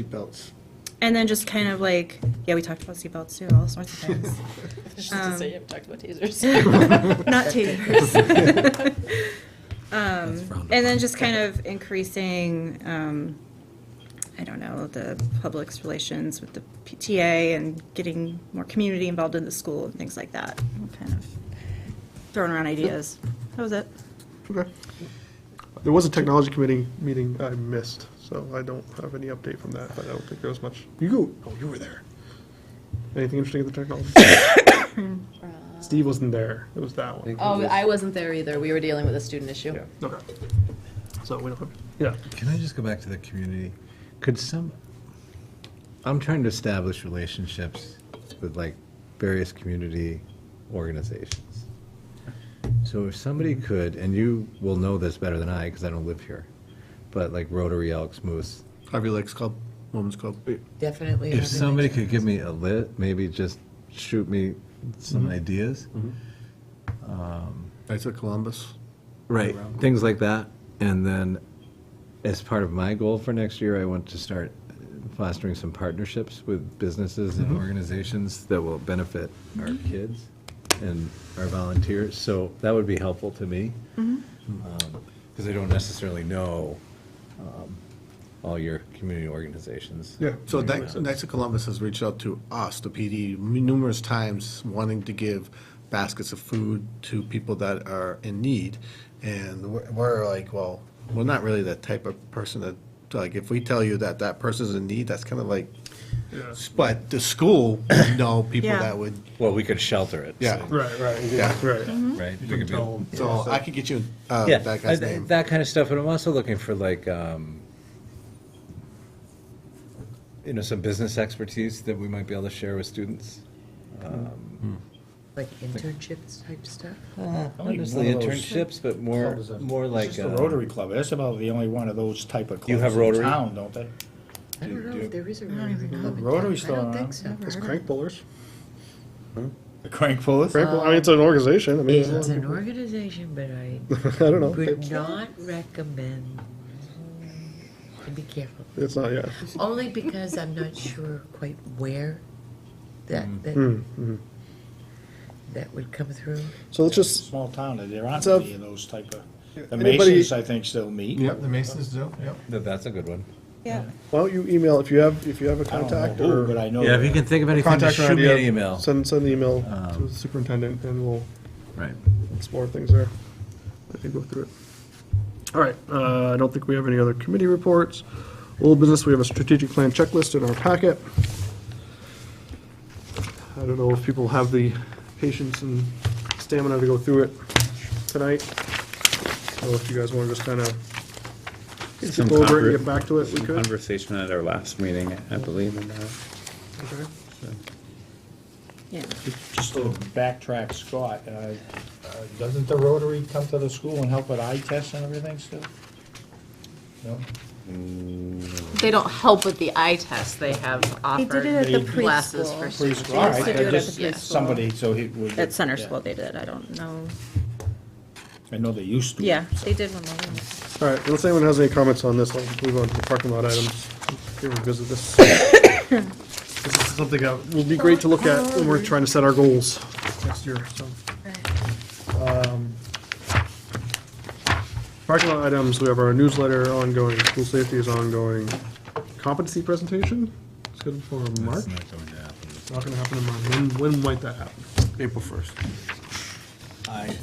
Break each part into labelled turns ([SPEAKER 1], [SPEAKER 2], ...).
[SPEAKER 1] seatbelts.
[SPEAKER 2] And then just kind of like, yeah, we talked about seatbelts too, all sorts of things.
[SPEAKER 3] Just to say,
[SPEAKER 2] Um,
[SPEAKER 3] you haven't talked about tasers.
[SPEAKER 2] Not tasers. Um,
[SPEAKER 4] frowned
[SPEAKER 2] And then
[SPEAKER 4] upon.
[SPEAKER 2] just kind of increasing, um, I don't know, the public's relations with the PTA and getting more community involved in the school and things like that. Kind of throwing around ideas. That was it.
[SPEAKER 1] Okay. There was a technology committee meeting I missed, so I don't have any update from that, but I don't think there was much. You, go- oh, you were there. Anything interesting at the technology? Steve wasn't there. It was that one.
[SPEAKER 3] Oh, I wasn't there either. We were dealing with a student issue.
[SPEAKER 1] Yeah, okay. So we don't have, yeah.
[SPEAKER 4] Can I just go back to the community? Could some, I'm trying to establish relationships with like various community organizations. So if somebody could, and you will know this better than I, because I don't live here, but like Rotary, Elks, Moose,
[SPEAKER 5] Harvey Lakes Club, Women's Club.
[SPEAKER 6] Definitely.
[SPEAKER 4] if somebody could give me a lit, maybe just shoot me some ideas.
[SPEAKER 5] Knights of Columbus.
[SPEAKER 4] Right, things like that. And then, as part of my goal for next year, I want to start fostering some partnerships with businesses and organizations that will benefit our kids and our volunteers. So that would be helpful to me. Because I don't necessarily know um, all your community organizations.
[SPEAKER 1] Yeah.
[SPEAKER 5] So Knights Knights of Columbus has reached out to us, the PD, numerous times wanting to give baskets of food to people that are in need. And we're- we're like, well, we're not really that type of person that, like, if we tell you that that person's in need, that's kind of like, but the school know people
[SPEAKER 2] Yeah.
[SPEAKER 5] that would,
[SPEAKER 4] Well, we could shelter it.
[SPEAKER 5] Yeah.
[SPEAKER 4] so,
[SPEAKER 1] Right, right,
[SPEAKER 5] Yeah.
[SPEAKER 1] right.
[SPEAKER 4] Right?
[SPEAKER 1] You
[SPEAKER 4] We
[SPEAKER 1] can
[SPEAKER 4] could be-
[SPEAKER 1] tell 'em.
[SPEAKER 5] so I could get you uh,
[SPEAKER 4] Yeah,
[SPEAKER 5] that
[SPEAKER 4] I-
[SPEAKER 5] guy's
[SPEAKER 4] th-
[SPEAKER 5] name.
[SPEAKER 4] That kind of stuff, but I'm also looking for like, um, you know, some business expertise that we might be able to share with students.
[SPEAKER 6] Like internships type stuff?
[SPEAKER 4] Not necessarily internships, but more,
[SPEAKER 7] clubs that-
[SPEAKER 4] more
[SPEAKER 7] It's
[SPEAKER 4] like.
[SPEAKER 7] just the
[SPEAKER 4] uh,
[SPEAKER 7] Rotary Club, that's about the only one of those type of clubs.
[SPEAKER 4] You have
[SPEAKER 7] in
[SPEAKER 4] Rotary?
[SPEAKER 7] Town, don't they?
[SPEAKER 6] I don't know if there is a Rotary Club. in town.
[SPEAKER 7] Rotary's still
[SPEAKER 6] I don't
[SPEAKER 7] around.
[SPEAKER 6] think so.
[SPEAKER 1] It's crank bowlers.
[SPEAKER 7] The Crank Pullers?
[SPEAKER 1] Crank, bowl- I mean, it's an organization. I mean, there's a lot
[SPEAKER 6] It's
[SPEAKER 1] of
[SPEAKER 6] an
[SPEAKER 1] people-
[SPEAKER 6] organization, but I
[SPEAKER 1] I don't know.
[SPEAKER 6] would not recommend, and be careful,
[SPEAKER 1] It's not, yeah.
[SPEAKER 6] only because I'm not sure quite where that, that,
[SPEAKER 1] Mm, mhm.
[SPEAKER 6] that would come through.
[SPEAKER 1] So let's just,
[SPEAKER 7] Small town, there aren't
[SPEAKER 1] So-
[SPEAKER 7] any of those type of, the
[SPEAKER 1] Anybody-
[SPEAKER 7] Masons, I think, still meet.
[SPEAKER 5] Yep, the Masons do, yep.
[SPEAKER 4] that- That's a good one.
[SPEAKER 2] Yeah.
[SPEAKER 1] why don't you email, if you have, if you have a
[SPEAKER 7] I don't know
[SPEAKER 1] contact
[SPEAKER 7] who,
[SPEAKER 1] or.
[SPEAKER 7] But I know.
[SPEAKER 4] Yeah, if you
[SPEAKER 7] that.
[SPEAKER 4] can think of anything, just
[SPEAKER 1] contact or
[SPEAKER 4] shoot me
[SPEAKER 1] idea,
[SPEAKER 4] an email. Um,
[SPEAKER 1] Send, send the email to the superintendent and we'll
[SPEAKER 4] Right.
[SPEAKER 1] explore things there. I can go through it. All right, uh, I don't think we have any other committee reports. Old business, we have a strategic plan checklist in our packet. I don't know if people have the patience and stamina to go through it tonight. So if you guys want to just kind of
[SPEAKER 8] Some
[SPEAKER 1] skip over it and
[SPEAKER 8] conver-
[SPEAKER 1] get back to it, we
[SPEAKER 8] some
[SPEAKER 1] could.
[SPEAKER 8] Conversation at our last meeting, I believe, and, uh,
[SPEAKER 1] Okay.
[SPEAKER 2] Yeah.
[SPEAKER 7] Just to backtrack, Scott, uh, uh, doesn't the Rotary come to the school and help with eye tests and everything still? No?
[SPEAKER 3] They don't help with the eye test. They have
[SPEAKER 2] They did it
[SPEAKER 3] offered
[SPEAKER 2] at the
[SPEAKER 7] They-
[SPEAKER 3] classes
[SPEAKER 2] preschool.
[SPEAKER 3] for
[SPEAKER 7] Please,
[SPEAKER 3] students.
[SPEAKER 7] all right,
[SPEAKER 2] They do
[SPEAKER 7] I
[SPEAKER 2] it at
[SPEAKER 7] just-
[SPEAKER 2] the preschool.
[SPEAKER 7] somebody, so he would.
[SPEAKER 2] At center
[SPEAKER 7] yeah.
[SPEAKER 2] school they did, I don't know.
[SPEAKER 7] I know they used to.
[SPEAKER 2] Yeah, they did one more. than-
[SPEAKER 1] All right, unless anyone has any comments on this, I'll move on to the parking lot items. Here we visit this. This is something that will be great to look at when we're trying to set our goals next year, so. Um, Parking lot items, we have our newsletter ongoing, school safety is ongoing. Competency presentation, it's good for March,
[SPEAKER 4] That's not going to happen.
[SPEAKER 1] not gonna happen in March. When, when might that happen?
[SPEAKER 5] April 1st.
[SPEAKER 4] I-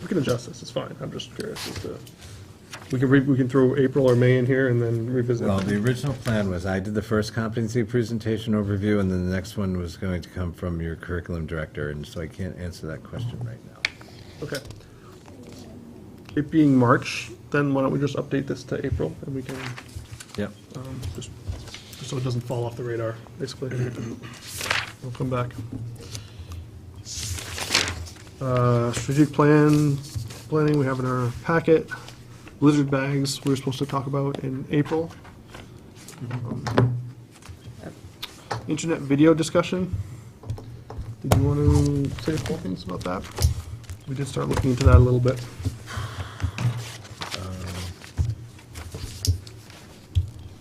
[SPEAKER 1] We can adjust this, it's fine, I'm just curious as to, we can, re- we can throw April or May in here and then revisit.
[SPEAKER 4] Well, the original plan was I did the first competency presentation overview, and then the next one was going to come from your curriculum director, and so I can't answer that question right now.
[SPEAKER 1] Okay. It being March, then why don't we just update this to April, and we can,
[SPEAKER 4] Yep.
[SPEAKER 1] um, just, just so it doesn't fall off the radar, basically. We'll come back. Uh, strategic plan, planning, we have in our packet, blizzard bags, we were supposed to talk about in April. Um, Internet video discussion. Did you want to say a couple things about that? We did start looking into that a little bit.